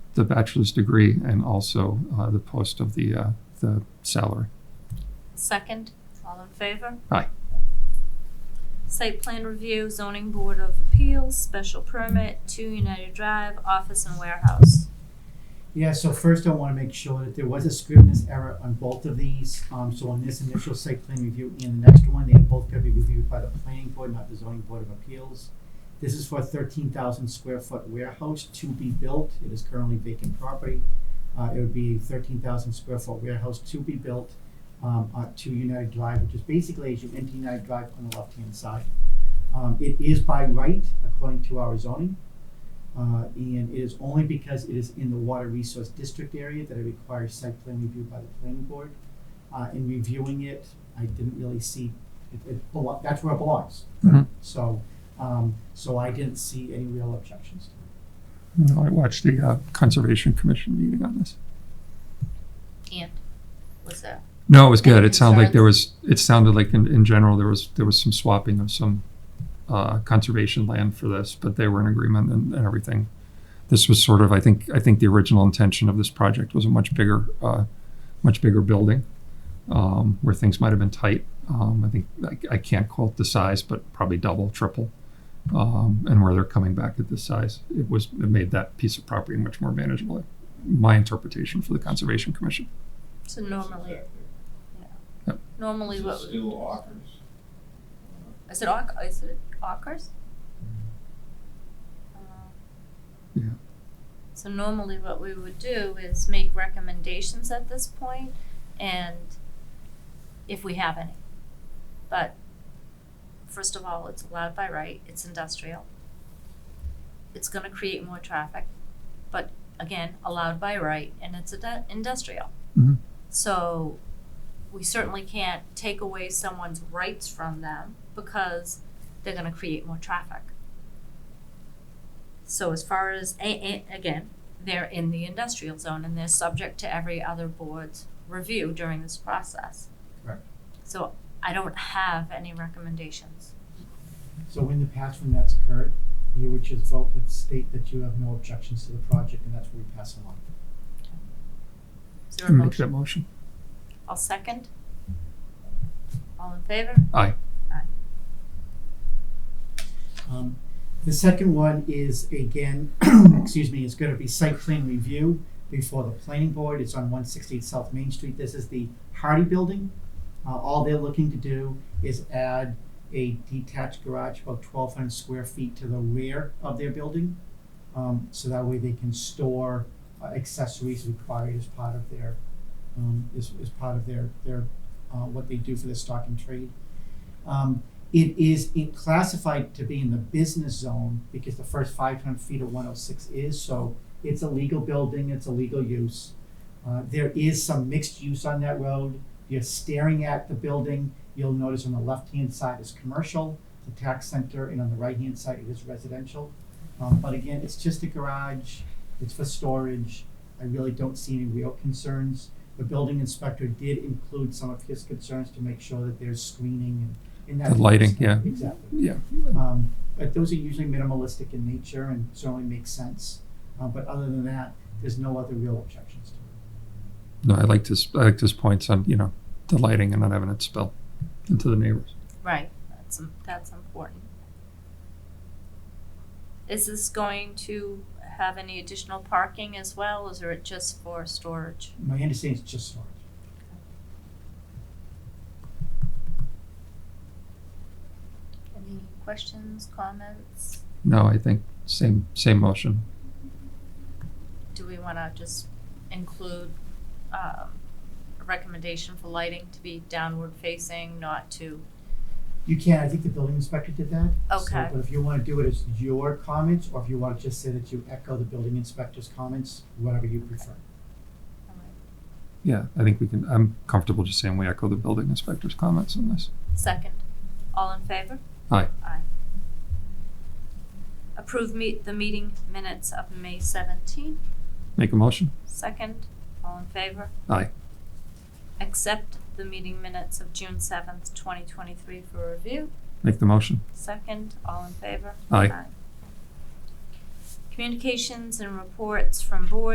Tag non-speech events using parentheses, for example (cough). the bachelor's degree and also uh, the post of the, uh, the salary. Second, all in favor? Aye. Site plan review, zoning board of appeals, special permit, two United Drive, office and warehouse. Yeah, so first I wanna make sure that there was a scrivener's error on both of these, um, so on this initial site plan review and the next one, they both gotta be reviewed by the planning board, not the zoning board of appeals. This is for a thirteen thousand square foot warehouse to be built, it is currently vacant property. Uh, it would be a thirteen thousand square foot warehouse to be built, um, on to United Drive, which is basically as you enter United Drive on the left-hand side. Um, it is by right, according to our zoning, uh, and it is only because it is in the water resource district area that it requires site plan review by the planning board. Uh, in reviewing it, I didn't really see, it, it, belo- that's where it belongs. Mhm. So, um, so I didn't see any real objections. You know, I watched the uh, Conservation Commission meeting on this. And, was that? No, it was good. It sounded like Concerns? there was, it sounded like in, in general, there was, there was some swapping of some uh, conservation land for this, but they were in agreement and, and everything. This was sort of, I think, I think the original intention of this project was a much bigger, uh, much bigger building um, where things might have been tight. Um, I think, I, I can't quote the size, but probably double, triple. Um, and where they're coming back at this size, it was, it made that piece of property much more manageable. My interpretation for the Conservation Commission. So normally, Yep. normally Is it what, still Ockers? is it Ock, is it Ockers? Mm. Um, Yeah. So normally what we would do is make recommendations at this point and if we have any. But first of all, it's allowed by right, it's industrial. It's gonna create more traffic, but again, allowed by right and it's a du- industrial. Mhm. So we certainly can't take away someone's rights from them because they're gonna create more traffic. So as far as, a- a- again, they're in the industrial zone and they're subject to every other board's review during this process. Correct. So I don't have any recommendations. So in the past, when that's occurred, you would just vote that state that you have no objections to the project, and that's what we pass along. Is there a Make that motion? motion. I'll second. All in favor? Aye. Um, the second one is again, (clears throat) excuse me, is gonna be site plan review before the planning board. It's on one sixty-eight South Main Street. This is the Hardy Building. Uh, all they're looking to do is add a detached garage about twelve hundred square feet to the rear of their building. Um, so that way they can store uh, accessories required as part of their, um, as, as part of their, their, uh, what they do for their stock and trade. Um, it is in- classified to be in the business zone because the first five hundred feet of one oh six is, so it's a legal building, it's a legal use. Uh, there is some mixed use on that road. You're staring at the building, you'll notice on the left-hand side is commercial, the tax center, and on the right-hand side it is residential. Um, but again, it's just a garage, it's for storage. I really don't see any real concerns. The building inspector did include some of his concerns to make sure that there's screening and, and that. The lighting, kind of stuff. yeah. Exactly. Yeah. Um, but those are usually minimalistic in nature and certainly make sense. Uh, but other than that, there's no other real objections to it. No, I liked his, I liked his points on, you know, the lighting and not having it spill into the neighbors. Right, that's, im- that's important. Is this going to have any additional parking as well, or is it just for storage? My understanding is just storage. Any questions, comments? No, I think same, same motion. Do we wanna just include, um, a recommendation for lighting to be downward facing, not to, You can, I think the building inspector did that. So, Okay. But if you wanna do it as your comments, or if you wanna just say that you echo the building inspector's comments, whatever you prefer. Yeah, I think we can, I'm comfortable just saying we echo the building inspector's comments on this. second, all in favor? Aye. Aye. Approve meet, the meeting minutes of May seventeenth, Make a motion? second, all in favor? Aye. Accept the meeting minutes of June seventh, twenty twenty-three for review, Make the motion? Second, all in favor? Aye. Communications and reports from board